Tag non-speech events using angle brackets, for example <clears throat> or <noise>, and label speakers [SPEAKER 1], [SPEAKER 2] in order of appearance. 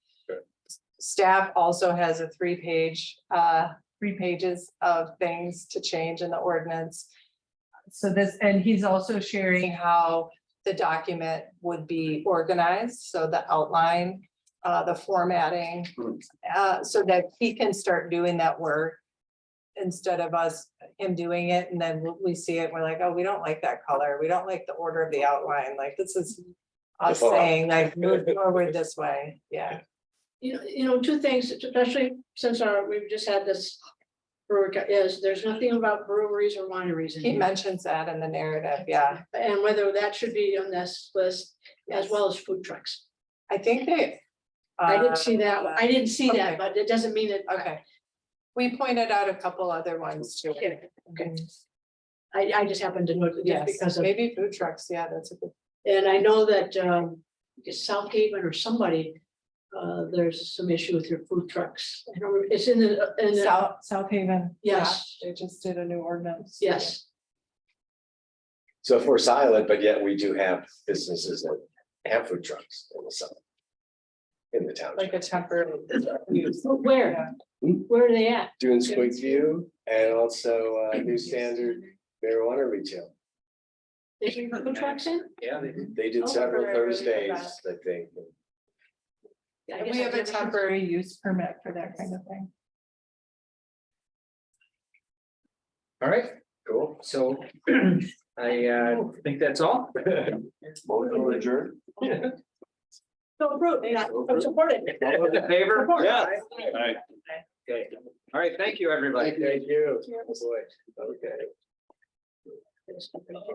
[SPEAKER 1] staff also has a three-page, uh, three pages of things to change in the ordinance.
[SPEAKER 2] So this, and he's also sharing,
[SPEAKER 1] Seeing how the document would be organized, so the outline, uh, the formatting, uh, so that he can start doing that work instead of us, him doing it, and then we see it, we're like, oh, we don't like that color, we don't like the order of the outline, like, this is us
[SPEAKER 3] Default.
[SPEAKER 1] saying, like, move forward this way, yeah.
[SPEAKER 4] You know, you know, two things, especially since our, we've just had this brewer, is there's nothing about breweries or wineries in
[SPEAKER 1] He
[SPEAKER 4] here.
[SPEAKER 1] mentions that in the narrative, yeah.
[SPEAKER 4] And whether that should be on this list as well as food trucks.
[SPEAKER 1] I think they.
[SPEAKER 4] I didn't see that. I didn't see
[SPEAKER 1] Uh, okay.
[SPEAKER 4] that, but it doesn't mean it.
[SPEAKER 1] uh, Okay. We pointed out a couple other ones too.
[SPEAKER 4] Okay.
[SPEAKER 1] Mhm.
[SPEAKER 4] I, I just happened to note it just
[SPEAKER 1] Yes,
[SPEAKER 4] because of,
[SPEAKER 1] maybe food trucks, yeah, that's a good,
[SPEAKER 4] and I know that, um, South Haven or somebody, uh, there's some issue with your food trucks. I don't, remember- it's in the, in the,
[SPEAKER 1] South, South Haven. yeah,
[SPEAKER 4] yes,
[SPEAKER 1] They just did a new ordinance.
[SPEAKER 4] yes.
[SPEAKER 3] So if we're silent, but yet we do have businesses that have food trucks in the summer. In the town,
[SPEAKER 1] Like a temporary use.
[SPEAKER 4] Where, where are they at?
[SPEAKER 3] doing Squeak View and also uh, New Standard marijuana retail.
[SPEAKER 4] They bring food trucks in?
[SPEAKER 3] Yeah, they did. They did
[SPEAKER 4] Oh,
[SPEAKER 3] several
[SPEAKER 4] right, right, right, right.
[SPEAKER 3] Thursdays, I think.
[SPEAKER 4] I
[SPEAKER 1] And
[SPEAKER 4] guess
[SPEAKER 1] We have
[SPEAKER 4] I've
[SPEAKER 1] a
[SPEAKER 4] never-
[SPEAKER 1] temporary use permit for that kind of thing.
[SPEAKER 5] All right,
[SPEAKER 3] Cool.
[SPEAKER 5] so <clears throat> I uh think that's all.
[SPEAKER 3] Motion adjourned.
[SPEAKER 4] So approved, they not supported.
[SPEAKER 5] All those in favor?
[SPEAKER 3] Yeah.
[SPEAKER 5] Okay. All right, thank you, everybody.
[SPEAKER 3] Thank you. Boy, Okay.